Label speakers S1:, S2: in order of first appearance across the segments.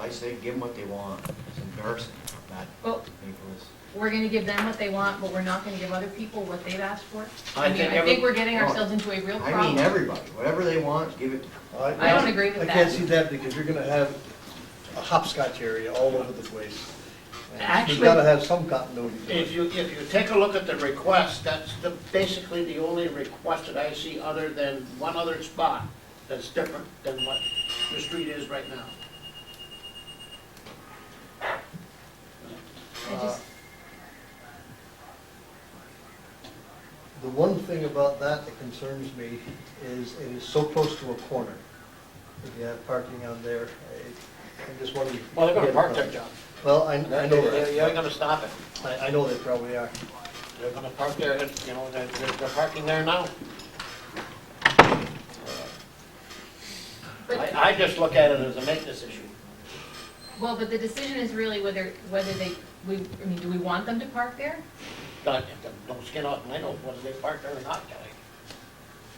S1: I say give them what they want. It's embarrassing, not
S2: Well,
S1: Nicholas.
S2: we're gonna give them what they want, but we're not gonna give other people what they've asked for?
S1: I
S2: I mean,
S1: think
S2: I
S1: every-
S2: think we're getting
S1: no.
S2: ourselves into a real problem.
S1: I mean, everybody, whatever they want, give it.
S2: I don't agree with
S3: I
S2: that.
S3: can't see that because you're gonna have a hopscotch area all over the place. And
S4: Actually-
S3: You've gotta have some continuity to
S4: If
S3: it.
S4: you, if you take a look at the request, that's the, basically the only request that I see other than one other spot that's different than what the street is right now.
S2: I just-
S1: uh,
S3: The one thing about that that concerns me is it is so close to a corner. If you have parking on there, I- I'm just wondering.
S4: Well, they're gonna park there, John.
S3: Well, I, I
S4: They're-
S3: know
S4: they're- You ain't
S3: that.
S4: gonna stop it.
S3: I, I know they probably are.
S4: They're gonna park there, and, you know, they're, they're they're parking there now.
S2: But-
S4: I, I just look at it as a maintenance issue.
S2: Well, but the decision is really whether, whether they, we, I mean, do we want them to park there?
S4: Not, don't skin off my nose whether they park there or not, Kelly.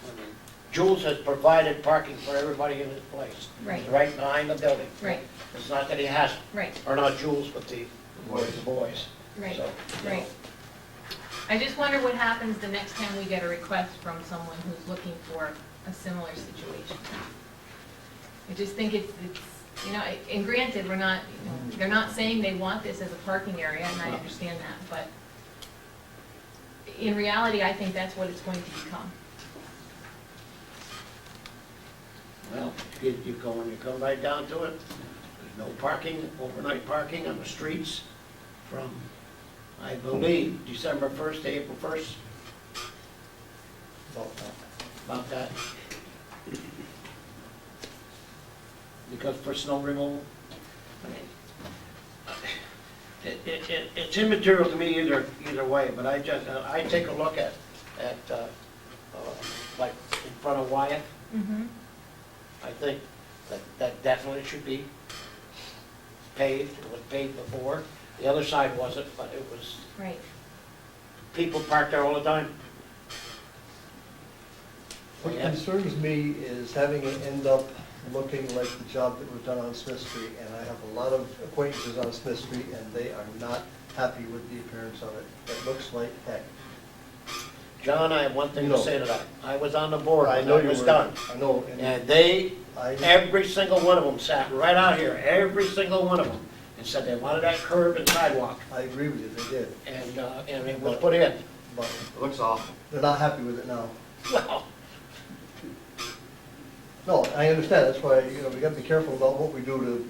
S4: I mean, Jules has provided parking for everybody in this place.
S2: Right.
S4: Right behind the building.
S2: Right.
S4: It's not that he has,
S2: Right,
S4: or not Jules, but the boys, the boys.
S2: right,
S4: So, you know,
S2: right. I just wonder what happens the next time we get a request from someone who's looking for a similar situation. I just think it's, it's, you know, and granted, we're not, you know, they're not saying they want this as a parking area, and I understand that, but in reality, I think that's what it's going to become.
S4: Well, you, you go, and you come right down to it, there's no parking, overnight parking on the streets from, I believe, December first to April first,
S3: Well, uh,
S4: about that. Because for snow removal, I mean, it, it, it- it's immaterial to me either, either way, but I just, I take a look at, at, uh, uh, like, in front of Wyatt,
S2: Mm-hmm.
S4: I think that, that definitely should be paved, it was paved before. The other side wasn't, but it was,
S2: Right.
S4: people parked there all the time.
S3: What
S4: Yeah.
S3: concerns me is having it end up looking like the job that was done on Smith Street, and I have a lot of acquaintances on Smith Street, and they are not happy with the appearance of it. It looks like heck.
S4: John, I have one thing to
S3: No.
S4: say to that. I was on the board
S3: I
S4: when
S3: know
S4: that
S3: you
S4: was
S3: were-
S4: done.
S3: I know, and
S4: And they,
S3: I,
S4: every single one of them sat right out here, every single one of them, and said they wanted that curb and sidewalk,
S3: I agree with you, they did,
S4: and, uh, and it was put in.
S3: but
S1: It looks awful.
S3: they're not happy with it now.
S4: Well,
S3: No, I understand, that's why, you know, we gotta be careful about what we do to,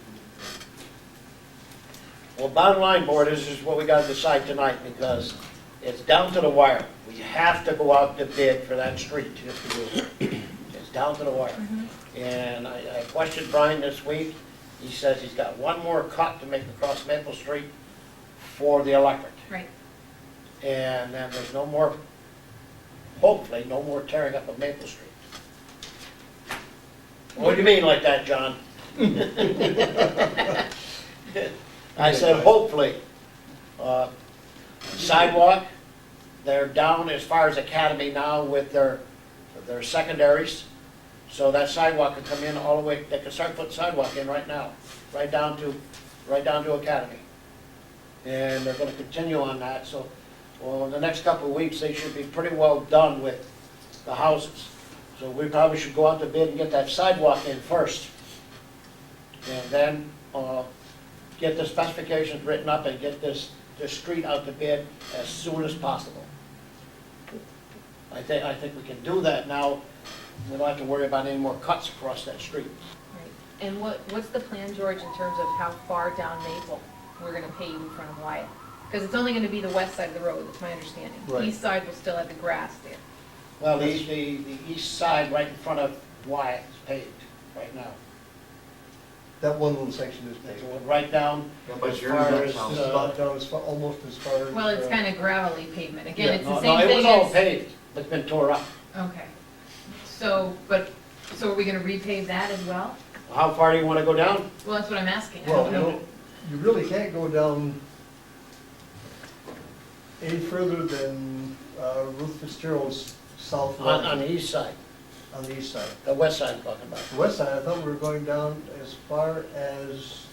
S4: Well, bottom line, board, is is what we gotta decide tonight, because it's down to the wire. We have to go out to bid for that street, if we do. It's down to the wire.
S2: Mm-hmm.
S4: And I, I questioned Brian this week, he says he's got one more cut to make across Maple Street for the electric.
S2: Right,
S4: And then there's no more, hopefully, no more tearing up of Maple Street. What do you mean like that, John? I said, hopefully. Uh, Sidewalk, they're down as far as Academy now with their, their secondaries. So that sidewalk could come in all the way, they could start putting sidewalk in right now, right down to, right down to Academy. And they're gonna continue on that, so, well, in the next couple of weeks, they should be pretty well done with the houses. So we probably should go out to bid and get that sidewalk in first. And then, uh, get the specifications written up and get this, this street out to bid as soon as possible. I think, I think we can do that now. We don't have to worry about any more cuts across that street.
S2: right. And what, what's the plan, George, in terms of how far down Maple we're gonna pave in front of Wyatt? Because it's only gonna be the west side of the road, that's my understanding.
S3: Right.
S2: East side will still have the grass there.
S4: Well, the, the, the east side right in front of Wyatt is paved right now.
S3: that one little section is
S4: It's
S3: paved.
S4: right down
S1: Yeah,
S4: As
S1: but yours,
S4: far
S1: that
S4: as,
S1: sounds-
S3: It's about down as far, almost as far as.
S2: Well, it's
S3: uh,
S2: kind of gravelly pavement, again,
S3: Yeah,
S2: it's the
S4: No,
S2: same
S4: no, it was
S2: thing
S4: all
S2: as.
S4: paved, but it's been tore up.
S2: Okay, so, but, so are we gonna repave that as well?
S4: How far do you want to go down?
S2: Well, that's what I'm asking, I
S3: Well,
S2: don't
S3: you
S2: know.
S3: know, you really can't go down any further than uh, Ruth Fitzgerald's south
S4: On, on
S3: line
S4: the east side,
S3: on the east side.
S4: the west side I'm talking about.
S3: The west side, I thought we were going down as far as